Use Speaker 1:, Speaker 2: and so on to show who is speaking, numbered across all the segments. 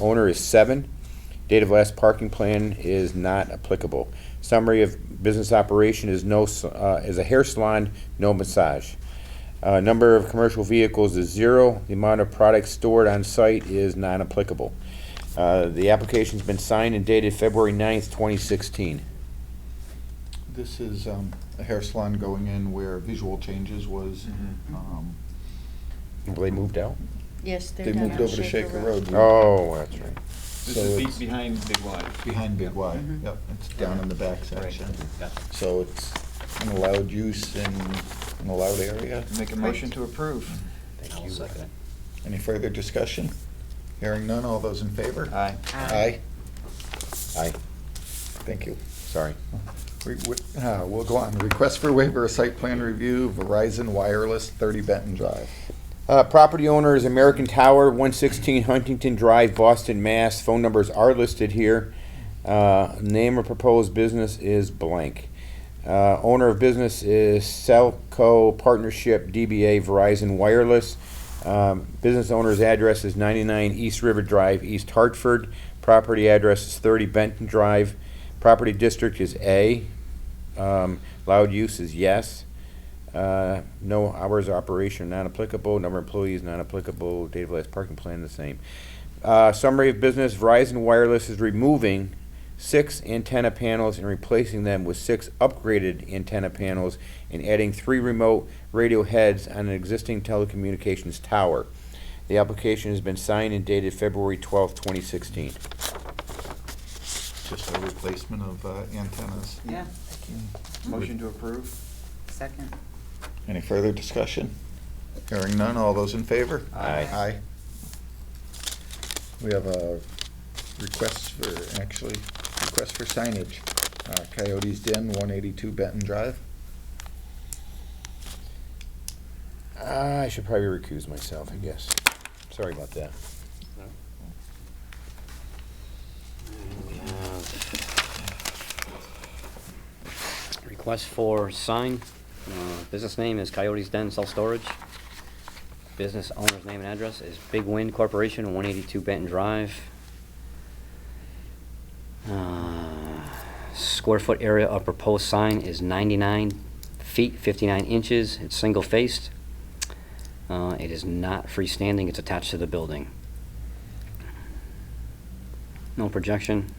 Speaker 1: owner is seven. Date of last parking plan is not applicable. Summary of business operation is no, s- uh, is a hair salon, no massage. Uh, number of commercial vehicles is zero. The amount of products stored on site is non-applicable. Uh, the application's been signed and dated February 9th, twenty sixteen.
Speaker 2: This is um, a hair salon going in where Visual Changes was, um,
Speaker 1: They moved out?
Speaker 3: Yes, they're
Speaker 2: they
Speaker 3: down
Speaker 2: moved
Speaker 3: on
Speaker 2: over to Shaker Road.
Speaker 1: Oh, that's right.
Speaker 4: This
Speaker 2: So
Speaker 4: is be-
Speaker 2: it's-
Speaker 4: behind Big Y.
Speaker 2: Behind Big Y,
Speaker 3: Mhm.
Speaker 2: yep, it's down in the back section.
Speaker 4: Yeah.
Speaker 2: So it's an allowed use in an allowed area.
Speaker 4: Make a motion to approve. Thank you.
Speaker 2: Any further discussion? Hearing none, all those in favor?
Speaker 4: Aye.
Speaker 2: Aye,
Speaker 1: Aye,
Speaker 2: thank you.
Speaker 1: sorry.
Speaker 2: We- we- uh, We'll go on. Request for waiver of site plan review, Verizon Wireless, 30 Benton Drive.
Speaker 1: Uh, property owner is American Tower, one sixteen Huntington Drive, Boston, Mass. Phone numbers are listed here. Uh, name of proposed business is blank. Uh, owner of business is Celco Partnership DBA Verizon Wireless. Um, business owner's address is ninety-nine East River Drive, East Hartford. Property address is thirty Benton Drive. Property district is A. Um, loud use is yes. Uh, No hours of operation not applicable, number of employees not applicable, date of last parking plan the same. Uh, Summary of business, Verizon Wireless is removing six antenna panels and replacing them with six upgraded antenna panels and adding three remote radio heads on an existing telecommunications tower. The application has been signed and dated February twelfth, twenty sixteen.
Speaker 2: Just a replacement of uh, antennas.
Speaker 5: Yeah,
Speaker 2: Mm-hmm.
Speaker 4: Motion to approve.
Speaker 5: second.
Speaker 2: Any further discussion? Hearing none, all those in favor?
Speaker 1: Aye.
Speaker 2: Aye. We have a request for, actually, request for signage. Uh, Coyotes Den, 182 Benton Drive.
Speaker 1: Uh, I should probably recuse myself, I guess. Sorry about that.
Speaker 6: Request for sign. Uh, Business name is Coyote's Den Self Storage. Business owner's name and address is Big Wind Corporation, 182 Benton Drive. Uh, Square foot area of proposed sign is 99 feet, 59 inches. It's single-faced. Uh, It is not freestanding, it's attached to the building. No projection.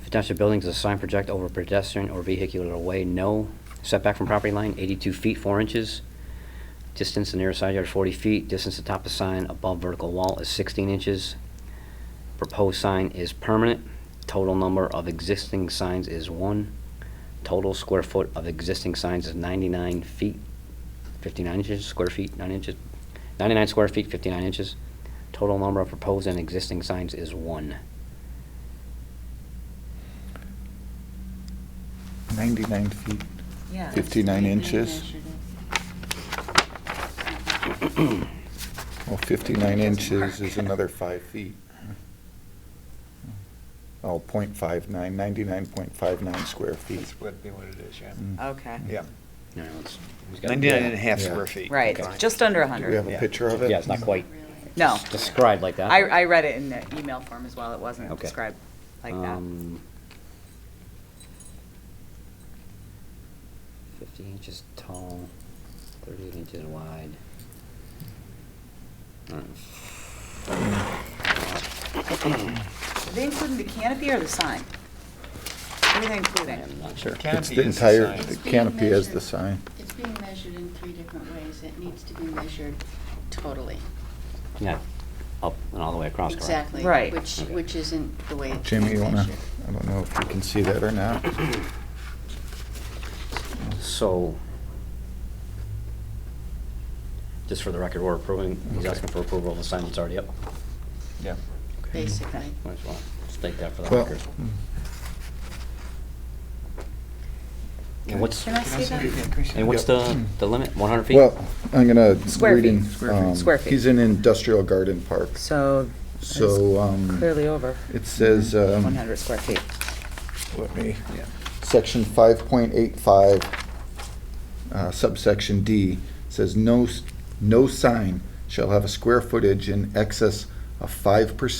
Speaker 6: If attached to buildings, the sign project over pedestrian or vehicular way, no. Setback from property line, 82 feet, 4 inches. Distance to nearest side yard, 40 feet. Distance to top of sign above vertical wall is 16 inches. Proposed sign is permanent. Total number of existing signs is 1. Total square foot of existing signs is 99 feet, 59 inches, square feet, 9 inches, 99 square feet, 59 inches. Total number of proposed and existing signs is 1.
Speaker 2: 99 feet.
Speaker 5: Yeah. that's
Speaker 2: 59
Speaker 5: what we
Speaker 2: inches.
Speaker 5: measured it.
Speaker 2: Well, 59 inches is another five feet. Oh, point five nine, ninety-nine point five nine square feet.
Speaker 4: That's would be what it is, yeah.
Speaker 2: Mm.
Speaker 5: Okay,
Speaker 4: Yeah.
Speaker 6: No, no, it's- it's got-
Speaker 4: Ninety-nine and a half
Speaker 2: Yeah.
Speaker 4: square feet.
Speaker 5: right, just under
Speaker 2: Do we have
Speaker 5: 100.
Speaker 2: a
Speaker 4: Yeah.
Speaker 2: picture of it?
Speaker 6: Yeah, it's not quite
Speaker 5: No,
Speaker 6: described like that.
Speaker 5: I, I read it in the email form as well, it wasn't
Speaker 6: Okay.
Speaker 5: described like that.
Speaker 6: Um, Fifty inches tall, thirty-eight inches wide. Uh,
Speaker 5: Are they including the canopy or the sign? What are they including?
Speaker 6: sure.
Speaker 2: It's
Speaker 4: Canopy
Speaker 2: the
Speaker 4: is
Speaker 2: entire,
Speaker 4: sign.
Speaker 2: the
Speaker 3: It's being
Speaker 2: canopy is the
Speaker 3: measured.
Speaker 2: sign.
Speaker 3: It's being measured in three different ways. It needs to be measured totally.
Speaker 6: Yeah, up and all the way across, correct?
Speaker 3: Exactly.
Speaker 5: Right.
Speaker 3: Which,
Speaker 6: Okay.
Speaker 3: which isn't the way it's
Speaker 2: Jimmy,
Speaker 3: being
Speaker 2: you wanna,
Speaker 3: measured.
Speaker 2: I don't know if you can see that or not.
Speaker 6: So, just for the record, we're approving, he's asking for approval of the sign that's already up.
Speaker 4: Yeah.
Speaker 6: Okay.
Speaker 3: Basically.
Speaker 6: Might as well state that for the
Speaker 2: Well,
Speaker 6: record.
Speaker 2: mm,
Speaker 6: And what's,
Speaker 5: Can I see that?
Speaker 6: and what's the, the limit, one hundred feet?
Speaker 2: well, I'm gonna
Speaker 5: Square
Speaker 2: read in.
Speaker 5: feet. Square feet.
Speaker 2: um,
Speaker 5: Square feet.
Speaker 2: He's in industrial garden park,
Speaker 5: So
Speaker 2: so, um,
Speaker 5: over.
Speaker 2: it says, um.
Speaker 5: 100 square feet.
Speaker 2: let me, section five point eight five, uh, subsection D, says no, s- no sign shall have a square footage in excess a five percent